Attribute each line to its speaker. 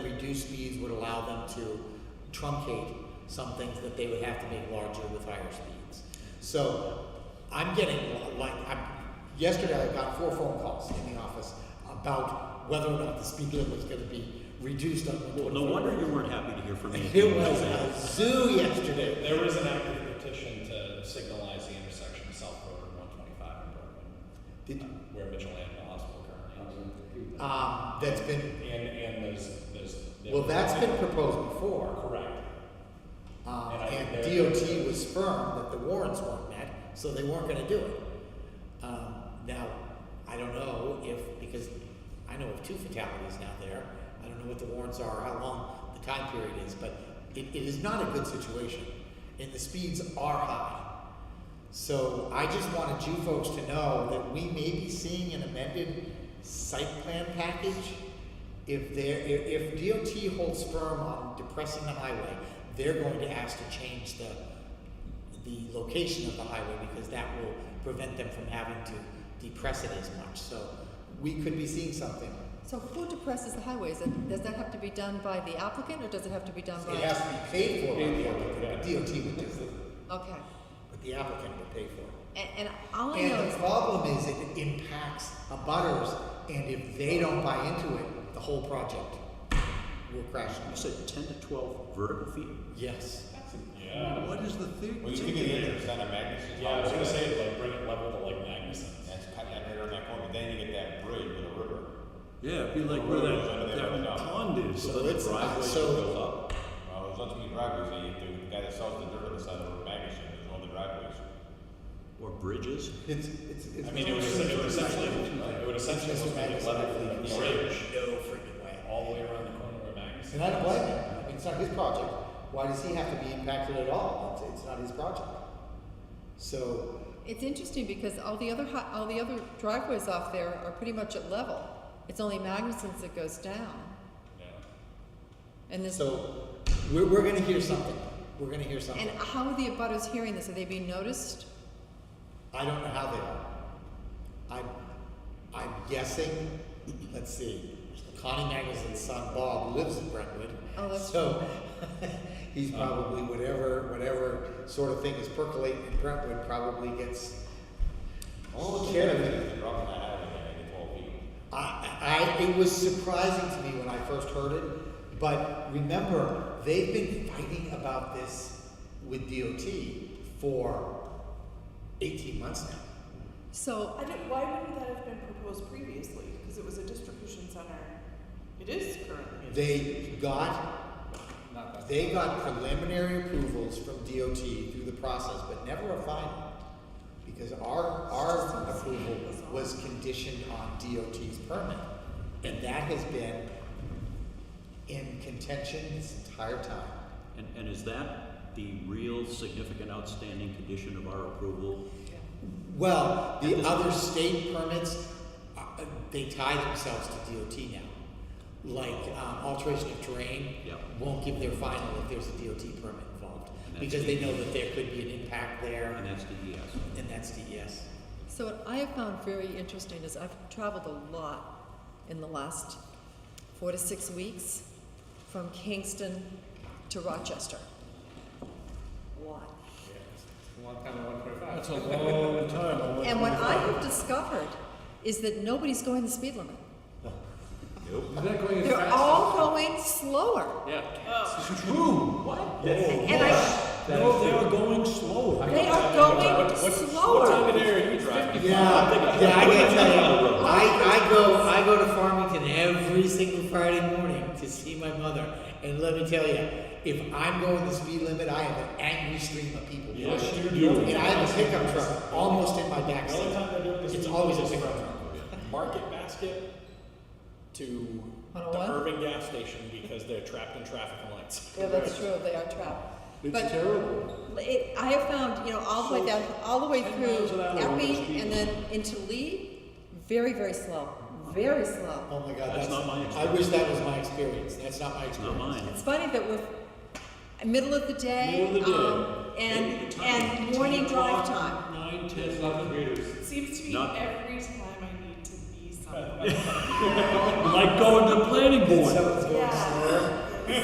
Speaker 1: review speeds would allow them to truncate some things that they would have to make larger with higher speeds. So I'm getting like I'm, yesterday I got four phone calls in the office about whether or not the speed limit was going to be reduced on
Speaker 2: Well, no
Speaker 1: 125.
Speaker 2: wonder you weren't happy to hear from me.
Speaker 1: It was a zoo yesterday.
Speaker 3: There was an active petition to signalize the intersection of South Road and one twenty-five in Brooklyn,
Speaker 1: Did,
Speaker 3: uh, where Mitchell Animal Hospital currently
Speaker 1: um, that's been
Speaker 3: is. And, and there's, there's.
Speaker 1: well, that's been proposed before,
Speaker 3: Correct.
Speaker 1: um,
Speaker 3: And I think
Speaker 1: and
Speaker 3: they're-
Speaker 1: DOT was firm that the warrants weren't met, so they weren't going to do it. Um, now, I don't know if because I know of two fatalities now there. I don't know what the warrants are, how long the time period is, but it, it is not a good situation, and the speeds are high. So I just wanted you folks to know that we may be seeing an amended site plan package. If there, if, if DOT holds firm on depressing the highway, they're going to ask to change the, the location of the highway because that will prevent them from having to depress it as much. So we could be seeing something.
Speaker 4: So who depresses the highways? And does that have to be done by the applicant or does it have to be done by?
Speaker 1: It has to be paid for by the applicant, but DOT would do it,
Speaker 4: Okay.
Speaker 1: but the applicant would pay for it.
Speaker 4: And, and all I know
Speaker 1: And
Speaker 4: is,
Speaker 1: the problem is it impacts the butters, and if they don't buy into it, the whole project will crash.
Speaker 2: You said ten to twelve vertical feet?
Speaker 1: Yes.
Speaker 3: Yeah.
Speaker 2: What is the theory?
Speaker 5: Well, you think it is, it's not a magnitude.
Speaker 3: Yeah, I was gonna
Speaker 5: That's
Speaker 3: say, like, bring it level to like Magnuson.
Speaker 5: cut that right on that corner, then you get that bridge with a river.
Speaker 2: Yeah, it'd be like where that, that pond is, so
Speaker 1: So
Speaker 2: that
Speaker 1: it's
Speaker 2: the
Speaker 1: not-
Speaker 2: driveway
Speaker 1: so-
Speaker 2: goes up.
Speaker 5: Well, there's lots of new driveways, that you do, the guy that sells the dirt on the side of the magnitude, there's all the driveways.
Speaker 2: Or bridges.
Speaker 1: It's, it's, it's.
Speaker 3: I mean, it would essentially, it would essentially, it would essentially
Speaker 1: Mr.
Speaker 3: just be like
Speaker 1: Magnuson,
Speaker 3: level
Speaker 1: I
Speaker 3: from the
Speaker 1: think,
Speaker 3: bridge
Speaker 1: No freaking way.
Speaker 3: all the way around the corner of Magnuson.
Speaker 1: And I don't blame him. I mean, it's not his project. Why does he have to be impacted at all? It's, it's not his project. So,
Speaker 4: it's interesting because all the other, hi- all the other driveways off there are pretty much at level. It's only Magnuson's that goes down. And this,
Speaker 1: so we're, we're gonna hear something. We're gonna hear something.
Speaker 4: and how are the abutters hearing this? Are they being noticed?
Speaker 1: I don't know how they are. I'm, I'm guessing, let's see, Connie Magnuson's son Bob lives in Brentwood.
Speaker 4: Oh, that's
Speaker 1: So, he's probably whatever, whatever sort of thing is percolating in Brentwood probably gets. Oh,
Speaker 5: All the
Speaker 1: yeah.
Speaker 5: driveways, they're up on that alley, and they get twelve feet.
Speaker 1: I, I, it was surprising to me when I first heard it, but remember, they've been fighting about this with DOT for eighteen months now.
Speaker 4: So
Speaker 6: I don't, why wouldn't that have been proposed previously? Because it was a distribution center. It is currently. a-
Speaker 1: They got, they got preliminary approvals from DOT through the process, but never a final. Because our, our approval was conditioned on DOT's permit. And that has been in contention this entire time.
Speaker 2: And, and is that the real significant outstanding condition of our approval?
Speaker 1: Well, the other state permits, uh, uh, they tie themselves to DOT now. Like um, alteration of terrain
Speaker 2: Yeah.
Speaker 1: won't give their final if there's a DOT permit involved
Speaker 2: And that's
Speaker 1: because they
Speaker 2: DES.
Speaker 1: know that there could be an impact there,
Speaker 2: And that's E the yes.
Speaker 1: and that's E DES.
Speaker 4: So what I have found very interesting is I've traveled a lot in the last four to six weeks from Kingston to Rochester. A lot.
Speaker 7: That's a long time. I
Speaker 4: And what I have discovered is that nobody's going the speed limit.
Speaker 7: Is that going as
Speaker 4: They're
Speaker 7: fast?
Speaker 4: all going slower.
Speaker 7: Yeah.
Speaker 6: Oh.
Speaker 7: It's true. What?
Speaker 4: And I,
Speaker 7: No, they are going slower.
Speaker 4: they are going slower.
Speaker 1: Yeah, yeah, I gotta tell you, I, I go, I go to Farmington every single Friday morning to see my mother, and let me tell you, if I'm going the speed limit, I have an angry stream of people.
Speaker 3: Yes, you do.
Speaker 1: And I have a pickup truck almost in my
Speaker 3: The only
Speaker 1: backseat.
Speaker 3: time they're doing this
Speaker 1: It's
Speaker 3: is
Speaker 1: always a
Speaker 3: just
Speaker 1: pickup
Speaker 3: from
Speaker 1: truck.
Speaker 3: Market Basket to the
Speaker 4: 101?
Speaker 3: Irving gas station because they're trapped in traffic and lights.
Speaker 4: Yeah, that's true, they are trapped. But-
Speaker 7: It's terrible.
Speaker 4: It, I have found, you know, all the way down, all the way
Speaker 7: Ten
Speaker 4: through
Speaker 7: miles an hour over
Speaker 4: Epping
Speaker 7: speed.
Speaker 4: and then into Lee, very, very slow, very slow.
Speaker 1: Oh my God,
Speaker 2: That's
Speaker 1: that's,
Speaker 2: not my
Speaker 1: I wish that was my experience. That's not my
Speaker 2: It's not
Speaker 1: experience.
Speaker 2: mine.
Speaker 4: It's funny that we're middle of the day,
Speaker 7: Middle of the day.
Speaker 4: um,
Speaker 2: Maybe
Speaker 4: and
Speaker 2: the time.
Speaker 4: and morning
Speaker 7: 10
Speaker 4: drive
Speaker 7: o'clock,
Speaker 4: time.
Speaker 7: Nine, ten, eleven meters.
Speaker 6: It seems to be
Speaker 2: Not-
Speaker 6: every time I need to be somewhere.
Speaker 7: Like going to the planning board.
Speaker 1: Someone's